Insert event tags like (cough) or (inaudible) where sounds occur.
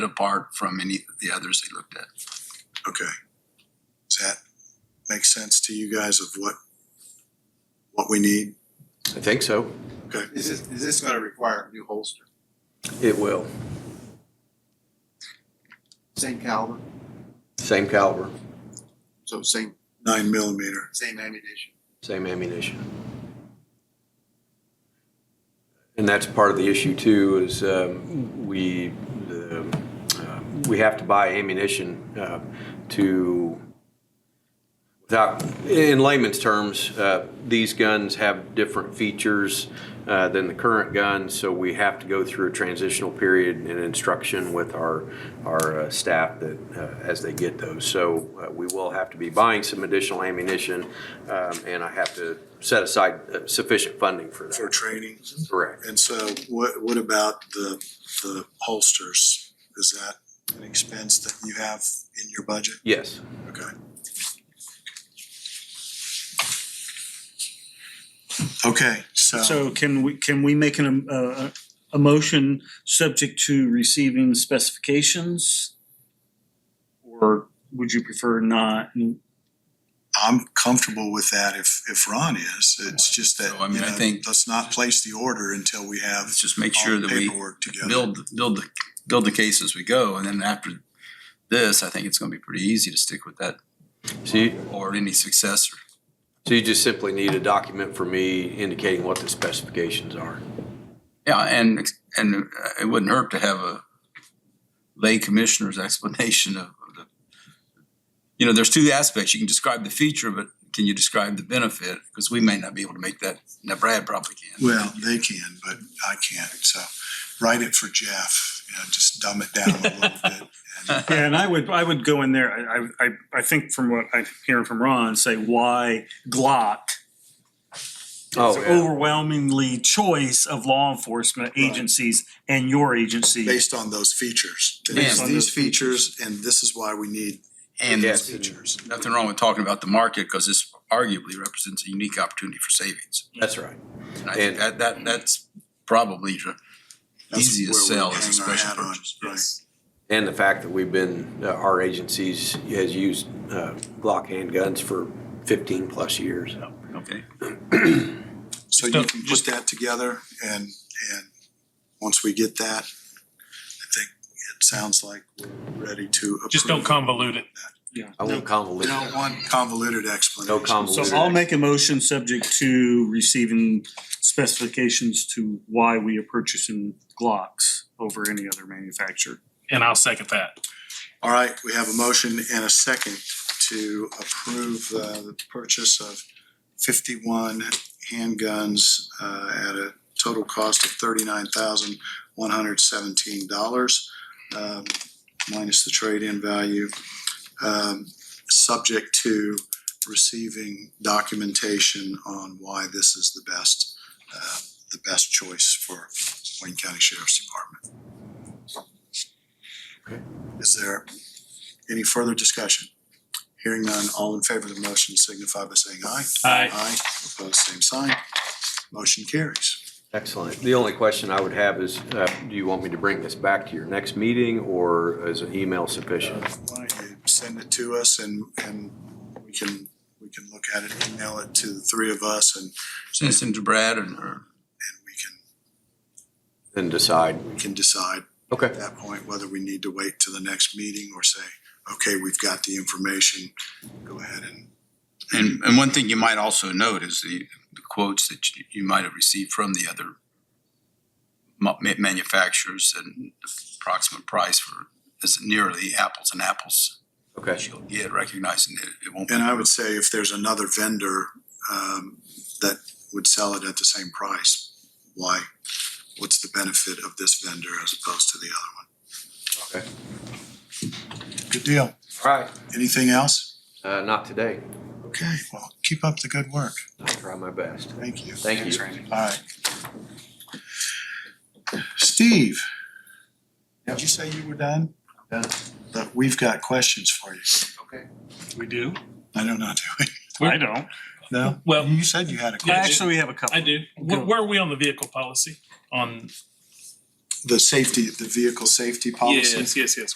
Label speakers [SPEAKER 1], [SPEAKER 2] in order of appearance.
[SPEAKER 1] apart from any of the others they looked at.
[SPEAKER 2] Okay. Does that make sense to you guys of what, what we need?
[SPEAKER 3] I think so.
[SPEAKER 4] Is this, is this gonna require a new holster?
[SPEAKER 3] It will.
[SPEAKER 4] Same caliber,
[SPEAKER 3] Same caliber,
[SPEAKER 4] so same,
[SPEAKER 2] Nine millimeter.
[SPEAKER 4] same ammunition.
[SPEAKER 3] same ammunition. And that's part of the issue too, is um, we, the, um, we have to buy ammunition uh, to, without, in layman's terms, uh, these guns have different features uh, than the current guns, so we have to go through a transitional period and instruction with our, our uh, staff that, uh, as they get those. So uh, we will have to be buying some additional ammunition, um, and I have to set aside uh, sufficient funding for
[SPEAKER 2] For
[SPEAKER 3] that.
[SPEAKER 2] training.
[SPEAKER 3] Correct.
[SPEAKER 2] And so what, what about the, the holsters? Is that an expense that you have in your budget?
[SPEAKER 3] Yes.
[SPEAKER 2] Okay. Okay, so,
[SPEAKER 5] So can we, can we make an, uh, a motion subject to receiving specifications? Or would you prefer not? And
[SPEAKER 2] I'm comfortable with that if, if Ron is. It's just that,
[SPEAKER 1] So, I mean,
[SPEAKER 2] you
[SPEAKER 1] I
[SPEAKER 2] know,
[SPEAKER 1] think-
[SPEAKER 2] let's not place the order until we have
[SPEAKER 1] Let's just make
[SPEAKER 2] all
[SPEAKER 1] sure
[SPEAKER 2] the
[SPEAKER 1] that we
[SPEAKER 2] paperwork together.
[SPEAKER 1] build, build, the build the case as we go. And then after this, I think it's gonna be pretty easy to stick with that
[SPEAKER 3] So you,
[SPEAKER 1] or any successor.
[SPEAKER 3] So you just simply need a document for me indicating what the specifications are.
[SPEAKER 1] Yeah, and, and uh, it wouldn't hurt to have a lay commissioner's (laughs) explanation of of the, you know, there's two aspects. You can describe the feature, but can you describe the benefit? Because we may not be able to make that, now Brad probably can.
[SPEAKER 2] Well, they can, but I can't, so write it for Jeff, you know, just dumb it down a little
[SPEAKER 1] (laughs)
[SPEAKER 2] bit.
[SPEAKER 5] Yeah, and I would, I would go in there, I, I, I- I think from what I'm hearing from Ron, say why Glock?
[SPEAKER 3] Oh,
[SPEAKER 5] It's overwhelmingly choice of law enforcement agencies and your
[SPEAKER 2] and
[SPEAKER 5] agency.
[SPEAKER 2] Based on those features,
[SPEAKER 1] Based
[SPEAKER 2] these
[SPEAKER 5] on
[SPEAKER 2] these
[SPEAKER 5] those
[SPEAKER 2] features, and this is why we need
[SPEAKER 1] And
[SPEAKER 2] these
[SPEAKER 3] Yes.
[SPEAKER 2] features.
[SPEAKER 1] nothing wrong with talking about the market because this arguably represents a unique opportunity for savings.
[SPEAKER 3] That's right.
[SPEAKER 1] And I think
[SPEAKER 3] And-
[SPEAKER 1] that, that, that's probably the
[SPEAKER 2] That's
[SPEAKER 1] easiest
[SPEAKER 2] where
[SPEAKER 1] sell
[SPEAKER 2] we
[SPEAKER 1] as a
[SPEAKER 2] hang our
[SPEAKER 1] special
[SPEAKER 2] hat on,
[SPEAKER 1] purchase.
[SPEAKER 2] right.
[SPEAKER 3] And the fact that we've been, uh, our agencies has used uh, Glock handguns for 15 plus years.
[SPEAKER 1] Okay.
[SPEAKER 2] So you can put that together and, and once we get that, I think it sounds like we're ready to approve.
[SPEAKER 6] Just don't convolute it.
[SPEAKER 3] I won't
[SPEAKER 2] We don't
[SPEAKER 3] convolute.
[SPEAKER 2] want convoluted explanations.
[SPEAKER 3] No convoluted.
[SPEAKER 5] So I'll make a motion subject to receiving specifications to why we are purchasing Glocks over any other manufacturer.
[SPEAKER 6] And I'll second that.
[SPEAKER 2] All right, we have a motion and a second to approve uh, the purchase of fifty-one handguns uh, at a total cost of thirty-nine thousand one hundred seventeen dollars um, minus the trade-in value, um, subject to receiving documentation on why this is the best, uh, the best choice for Wayne County Sheriff's Department. Is there any further discussion? Hearing none, all in favor of the motion signify by saying aye.
[SPEAKER 6] Aye.
[SPEAKER 2] Aye, opposed, same sign. Motion carries.
[SPEAKER 3] Excellent. The only question I would have is, uh, do you want me to bring this back to your next meeting or is an email sufficient?
[SPEAKER 2] Why don't you uh, Send it to us and, and we can, we can look at it, email it to the three of us and,
[SPEAKER 1] Send this in to Brad and her.
[SPEAKER 2] and we can,
[SPEAKER 3] Then decide.
[SPEAKER 2] we can decide
[SPEAKER 3] Okay.
[SPEAKER 2] at that point whether we need to wait to the next meeting or say, okay, we've got the information, go ahead and
[SPEAKER 1] And, and one thing you might also note is the the quotes that you, you might have received from the other ma- ma- manufacturers and the approximate price for is nearly apples and apples
[SPEAKER 3] Okay.
[SPEAKER 1] that you'll get, recognizing that it won't. be-
[SPEAKER 2] And I would say if there's another vendor um, that would sell it at the same price, why? What's the benefit of this vendor as opposed to the other one? Okay. Good deal.
[SPEAKER 3] All right.
[SPEAKER 2] Anything else?
[SPEAKER 3] Uh, Not today.
[SPEAKER 2] Okay, well, keep up the good work.
[SPEAKER 3] I'll try my best.
[SPEAKER 2] Thank you.
[SPEAKER 3] Thank you.
[SPEAKER 2] All right. Steve, did you say you were done?
[SPEAKER 4] Done.
[SPEAKER 2] But we've got questions for you.
[SPEAKER 6] We do?
[SPEAKER 2] I don't know, do we?
[SPEAKER 5] I don't.
[SPEAKER 2] No?
[SPEAKER 6] Well,
[SPEAKER 2] You said you had a
[SPEAKER 6] Yeah,
[SPEAKER 2] question.
[SPEAKER 5] Actually, we have a couple.
[SPEAKER 6] I do. Where, where are we on the vehicle policy? On
[SPEAKER 2] the safety, the vehicle safety policy?
[SPEAKER 6] Yes, yes, yes.